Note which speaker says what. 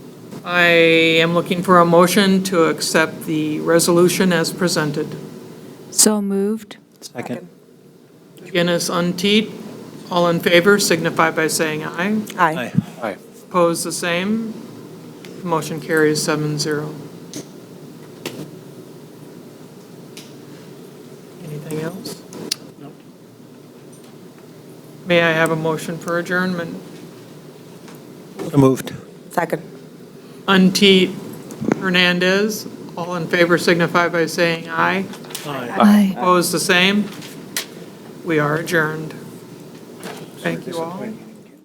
Speaker 1: I am looking for a motion to accept the resolution as presented.
Speaker 2: So moved.
Speaker 3: Second.
Speaker 1: Guinness Unteed, all in favor signify by saying aye.
Speaker 3: Aye.
Speaker 1: Opposed, the same. Motion carries seven zero. Anything else? May I have a motion for adjournment?
Speaker 3: So Moved.
Speaker 4: Second.
Speaker 1: Unteed, Hernandez, all in favor signify by saying aye.
Speaker 2: Aye.
Speaker 1: Opposed, the same. We are adjourned. Thank you all.